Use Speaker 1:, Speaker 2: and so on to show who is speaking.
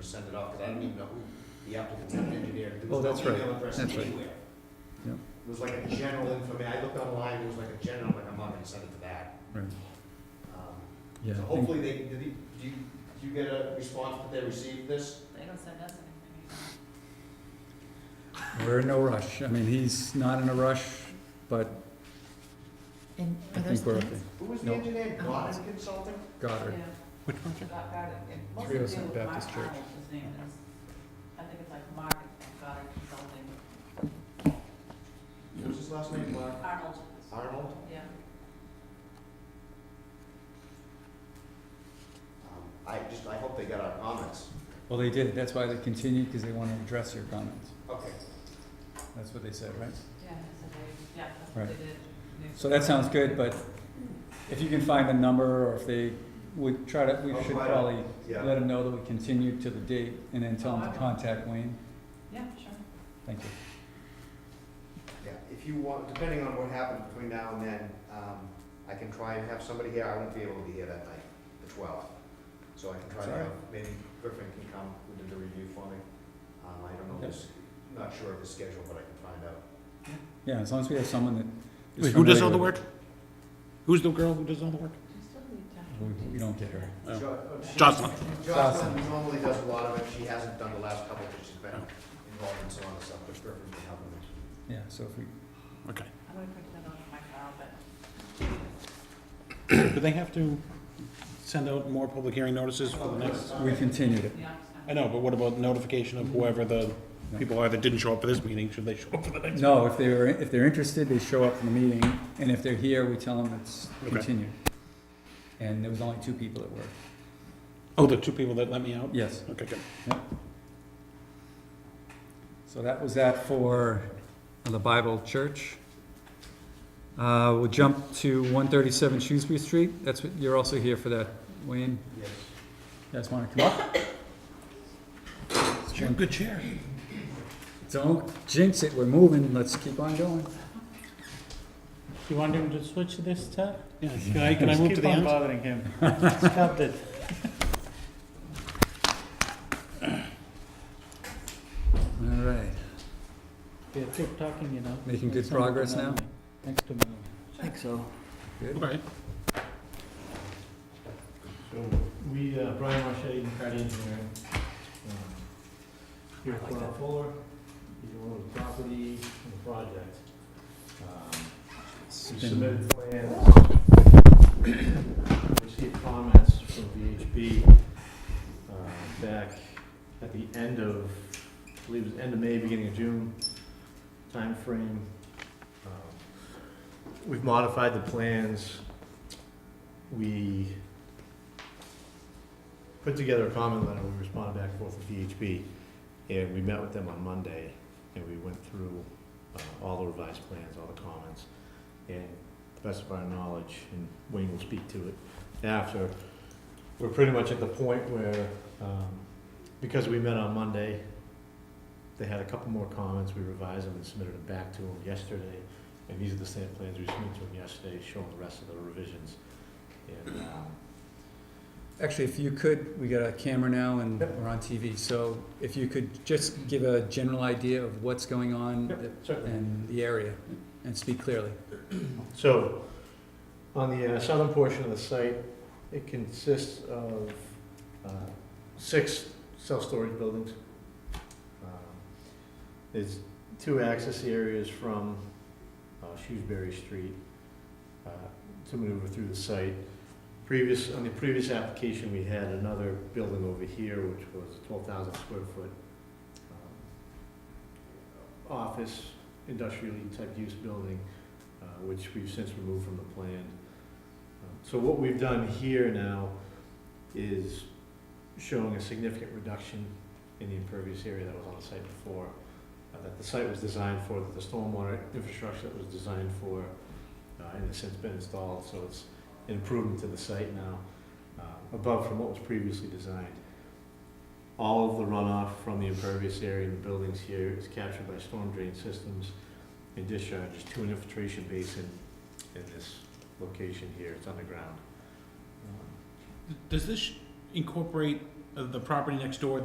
Speaker 1: send it off, because I don't even know who the applicant's engineer, there
Speaker 2: Oh,
Speaker 1: was
Speaker 2: that's
Speaker 1: no
Speaker 2: right.
Speaker 1: email address
Speaker 2: That's right.
Speaker 1: anywhere.
Speaker 2: Yep.
Speaker 1: It was like a general information, I looked online, it was like a general, like, I'm not gonna send it to that.
Speaker 2: Right.
Speaker 1: Um,
Speaker 2: Yeah,
Speaker 1: So
Speaker 2: I think-
Speaker 1: hopefully they, did they, do you, do you get a response that they received this?
Speaker 3: They don't send us anything.
Speaker 2: we're in no rush. I mean, he's not in a rush, but
Speaker 4: And
Speaker 2: I
Speaker 4: are those
Speaker 2: think we're
Speaker 4: plans?
Speaker 2: okay.
Speaker 1: Who was
Speaker 2: No.
Speaker 1: the engineer,
Speaker 4: Oh.
Speaker 1: Goddard Consulting?
Speaker 2: Goddard.
Speaker 5: Which one?
Speaker 3: Yeah, got, got it. It must
Speaker 2: 307
Speaker 3: do with
Speaker 2: Baptist
Speaker 3: Mark
Speaker 2: Church.
Speaker 3: Arnold, His name is, I think it's like Mark, got it, something,
Speaker 1: What was his last name, Mark?
Speaker 3: Arnold,
Speaker 1: Arnold?
Speaker 3: yeah.
Speaker 1: Um, I just, I hope they got our comments.
Speaker 2: Well, they did. That's why they continued, because they want to address your comments.
Speaker 1: Okay.
Speaker 2: That's what they said, right?
Speaker 3: Yeah, so they, yeah, that's
Speaker 2: Right.
Speaker 3: what they did. They-
Speaker 2: So that sounds good, but if you can find a number, or if they would try to, we
Speaker 1: I'll
Speaker 2: should
Speaker 1: find
Speaker 2: probably
Speaker 1: Yeah.
Speaker 2: let them know that we continue to the date, and then tell them to contact Wayne.
Speaker 3: Yeah, sure.
Speaker 2: Thank you.
Speaker 1: Yeah, if you want, depending on what happens between now and then, um, I can try and have somebody here, I won't be able to be here that night, the twelfth. So I can try to
Speaker 2: Sorry.
Speaker 1: have, maybe Griffin can come and do the review for me. Um, I don't know, this, not sure of his schedule, but I can find out.
Speaker 2: Yeah, as long as we have someone that is
Speaker 5: Wait, who does
Speaker 2: familiar
Speaker 5: all the
Speaker 2: with
Speaker 5: work? Who's the girl who does all the work?
Speaker 3: Do you still need
Speaker 2: it.
Speaker 3: time?
Speaker 2: We- We don't get her.
Speaker 5: Oh.
Speaker 1: Jo- uh, she-
Speaker 5: Jocelyn.
Speaker 1: Jocelyn normally does a lot of it, she hasn't done the last couple, because she's been involved in some other stuff, but Griffin's been helping me.
Speaker 2: Yeah, so if we,
Speaker 5: Okay.
Speaker 3: I'm gonna print that out on my file, but
Speaker 5: Do they have to send out more public hearing notices for the next?
Speaker 2: we continued it.
Speaker 3: yeah. I'm-
Speaker 5: I know, but what about notification of whoever the people are that didn't show up for this meeting? Should they show up for the next?
Speaker 2: No, if they were, if they're interested, they show up for the meeting, and if they're here, we tell them it's
Speaker 5: Okay.
Speaker 2: continued. And there was only two people that were,
Speaker 5: Oh, the two people that let me out?
Speaker 2: yes.
Speaker 5: Okay, good.
Speaker 2: So that was that for the Bible Church. Uh, we'll jump to one thirty-seven Shrewsbury Street, that's what, you're also here for that, Wayne,
Speaker 1: Yes.
Speaker 2: you guys wanna come up?
Speaker 5: Chair, Good chair.
Speaker 2: Don't jinx it, we're moving, let's keep on going.
Speaker 6: You want him to switch this stuff?
Speaker 5: Yeah, can I, can I move to the
Speaker 6: Keep
Speaker 5: end?
Speaker 6: on bothering him. Stop it.
Speaker 2: All right,
Speaker 6: Yeah, keep talking, you know.
Speaker 2: Making good
Speaker 6: It's not
Speaker 2: progress
Speaker 6: gonna
Speaker 2: now?
Speaker 6: be Next to me.
Speaker 4: think so.
Speaker 2: good.
Speaker 5: Okay.
Speaker 6: So, we, uh, Brian Marchetti, McCarty Engineering, Um, here
Speaker 5: like that.
Speaker 6: Fuller, he's one of the property and the project. Um, We submitted plans, received comments from VHB uh, back at the end of, I believe it was end of May, beginning of June timeframe. Um, We've modified the plans. We put together a comment letter, we responded back and forth with VHB, and we met with them on Monday, and we went through uh, all the revised plans, all the comments. And to the best of our knowledge, and Wayne will speak to it after, we're pretty much at the point where, um, because we met on Monday, they had a couple more comments, we revised them and submitted them back to them yesterday. And these are the same plans we submitted to them yesterday, showing the rest of the revisions. And, um,
Speaker 2: Actually, if you could, we got a camera now and
Speaker 6: Yep.
Speaker 2: we're on TV, so if you could just give a general idea of what's going on
Speaker 6: Yep,
Speaker 2: that-
Speaker 6: certainly.
Speaker 2: and the area, and speak clearly.
Speaker 6: So, on the uh, southern portion of the site, it consists of uh, six self-storage buildings. Um, There's two access areas from uh, Shrewsbury Street uh, to maneuver through the site. Previous, on the previous application, we had another building over here, which was twelve thousand square foot um, office, industrially type use building uh, which we've since removed from the plan. Um, So what we've done here now is showing a significant reduction in the impervious area that was on the site before, uh, that the site was designed for, that the stormwater infrastructure that was designed for, uh, and has since been installed, so it's an improvement to the site now, uh, above from what was previously designed. All of the runoff from the impervious area in the buildings here is captured by storm drain systems and discharges to an infiltration basin in this location here, it's underground. Um,
Speaker 5: Does this incorporate uh, the property next door